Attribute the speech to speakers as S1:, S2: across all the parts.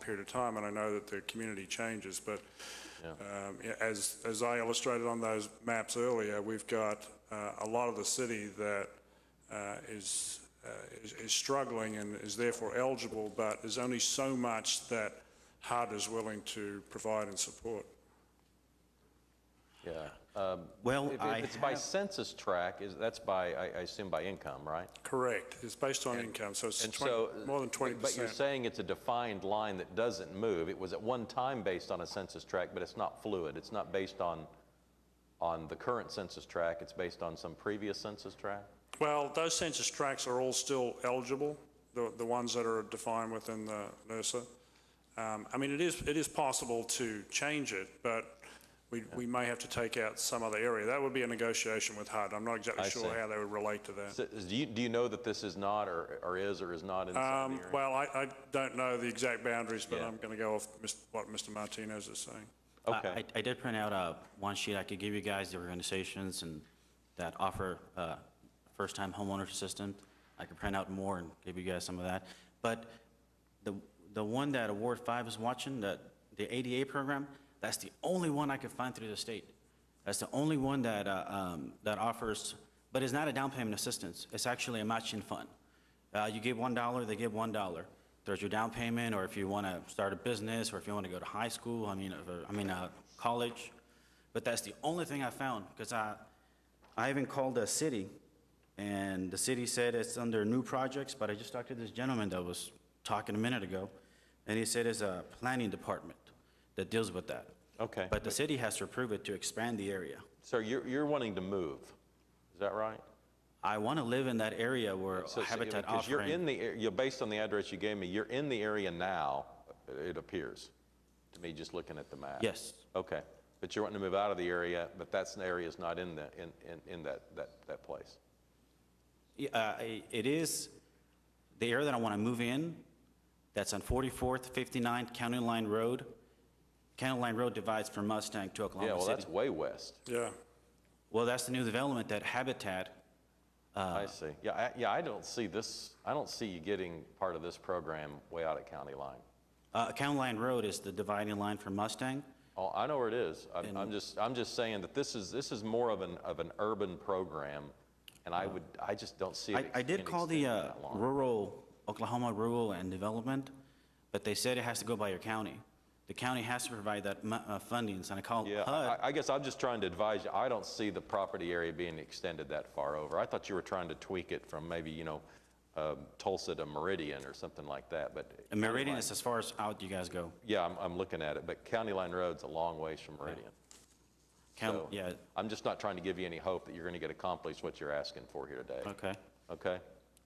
S1: period of time, and I know that the community changes, but
S2: Yeah.
S1: um, yeah, as, as I illustrated on those maps earlier, we've got uh, a lot of the city that uh, is, uh, is- is struggling and is therefore eligible, but there's only so much that HUD is willing to provide and support.
S2: Yeah.
S1: Oh,
S2: Um,
S3: Well,
S2: If
S3: I
S2: if it's by
S3: have-
S2: census tract, is, that's by, I I assume by income, right?
S1: Correct. It's based on income, so it's
S2: And
S1: 20
S2: so.
S1: more than 20%.
S2: But you're saying it's a defined line that doesn't move. It was at one time based on a census tract, but it's not fluid. It's not based on, on the current census tract. It's based on some previous census tract?
S1: Well, those census tracts are all still eligible, the, the ones that are defined within the NERSA. Um, I mean, it is, it is possible to change it, but we, we may have to take out some other area. That would be a negotiation with HUD. I'm not exactly
S2: I
S1: sure
S2: see.
S1: how they would relate to that.
S2: So is- Do you, do you know that this is not, or, or is, or is not in some of
S1: Um,
S2: the area?
S1: well, I, I don't know the exact boundaries, but
S2: Yeah.
S1: I'm going to go off Mis- what Mr. Martinez is saying.
S3: I-
S2: Okay.
S3: I, I did print out a one sheet. I could give you guys the organizations and that offer uh, first-time homeowner assistance. I could print out more and give you guys some of that. But the, the one that Award 5 is watching, the, the ADA program, that's the only one I could find through the state. That's the only one that, uh, um, that offers, but it's not a down payment assistance. It's actually a matching fund. Uh, You give $1, they give $1. There's your down payment, or if you want to start a business, or if you want to go to high school, I mean, or- I mean, uh, college. But that's the only thing I found, because I, I even called the city, and the city said it's under new projects, but I just talked to this gentleman that was talking a minute ago, and he said it's a planning department that deals with that.
S2: Okay.
S3: But the city has to approve it to expand the area.
S2: So you're, you're wanting to move. Is that right?
S3: I want to live in that area where
S2: So- so-
S3: Habitat
S2: Because you're in
S3: offering,
S2: the, ar- you're, based on the address you gave me, you're in the area now, it appears, to me, just looking at the map.
S3: Yes.
S2: Okay, but you're wanting to move out of the area, but that's, the area's not in the, in, in, in that, that, that place.
S3: Yeah, uh, i- it is the area that I want to move in, that's on 44th, 59 County Line Road. County Line Road divides from Mustang to
S2: Yeah,
S3: Oklahoma
S2: well,
S3: City.
S2: that's way west.
S1: Yeah.
S3: Well, that's the new development that Habitat Uh.
S2: I see. Yeah, I, yeah, I don't see this, I don't see you getting part of this program way out at county line.
S3: Uh, County Line Road is the dividing line for Mustang.
S2: Oh, I know where it is. I'm, I'm just, I'm just saying that this is, this is more of an, of an urban program, and I would, I just don't see
S3: Uh. I,
S2: it.
S3: I did
S2: being
S3: call the
S2: extended
S3: uh,
S2: that long.
S3: rural, Oklahoma Rural and Development, but they said it has to go by your county. The county has to provide that mu- uh, funding, so I called
S2: Yeah,
S3: HUD.
S2: I- I guess I'm just trying to advise you, I don't see the property area being extended that far over. I thought you were trying to tweak it from maybe, you know, um, Tulsa to Meridian or something like that, but.
S3: And Meridian
S2: County
S3: is
S2: Line-
S3: as far as out you guys go.
S2: Yeah, I'm, I'm looking at it, but County Line Road's a long ways from Meridian.
S3: County,
S2: So,
S3: yeah,
S2: I'm just not trying to give you any hope that you're going to get accomplished what you're asking for here today,
S3: okay.
S2: okay?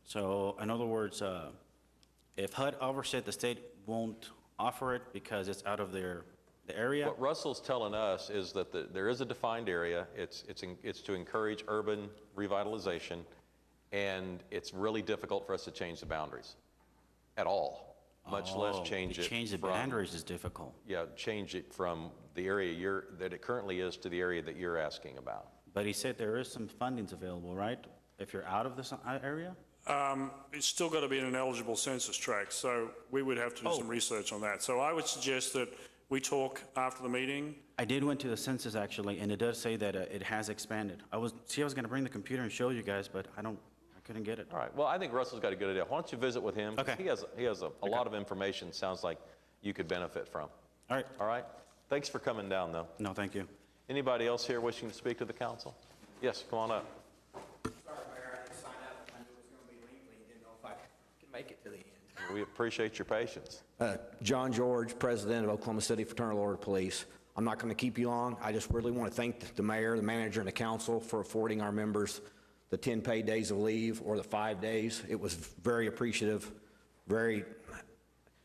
S3: So in other words, uh, if HUD overset, the state won't offer it because it's out of their, the area.
S2: What Russell's telling us is that the- there is a defined area, it's, it's, en- it's to encourage urban revitalization, and it's really difficult for us to change the boundaries at all, much less
S3: Oh,
S2: change
S3: to
S2: it
S3: Change the
S2: from-
S3: boundaries is difficult.
S2: Yeah, change it from the area you're, that it currently is to the area that you're asking about.
S3: But he said there is some fundings available, right? If you're out of this uh, area?
S1: Um, It's still got to be in an eligible census tract, so we would have to
S2: Oh.
S1: do some research on that. So I would suggest that we talk after the meeting.
S3: I did went to the census actually, and it does say that uh, it has expanded. I was, see, I was gonna bring the computer and show you guys, but I don't, I couldn't get it.
S2: All right, well, I think Russell's got a good idea. Why don't you visit with him? 'Cause
S3: Okay.
S2: He has, he has a a lot of information, sounds like you could benefit from.
S3: All right,
S2: All right? Thanks for coming down, though.
S3: no, thank you.
S2: Anybody else here wishing to speak to the council? Yes, come on up.
S4: Sorry, Mayor, I didn't sign up. I knew it was going to be lengthy, didn't know if I could make it to the end.
S2: We appreciate your patience.
S5: Uh, John George, President of Oklahoma City Fraternal Order of Police. I'm not going to keep you long. I just really want to thank the mayor, the manager, and the council for affording our members the 10 paid days of leave or the five days. It was very appreciative, very,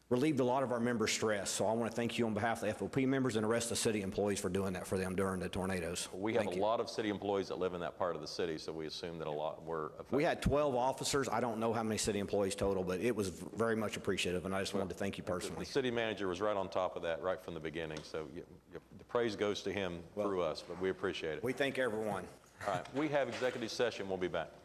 S5: relieved a lot of our members' stress. So I want to thank you on behalf of the FOP members and the rest of the city employees for doing that for them during the tornadoes.
S2: We have a
S5: Thank you.
S2: lot of city employees that live in that part of the city, so we assume that a lot were affected.
S5: We had 12 officers. I don't know how many city employees total, but it was very much appreciative, and I just wanted to thank you
S2: The
S5: personally.
S2: city manager was right on top of that right from the beginning, so y- y- the praise goes to him through us, but we appreciate it.
S5: We thank everyone.
S2: All right, we have executive session, we'll be back.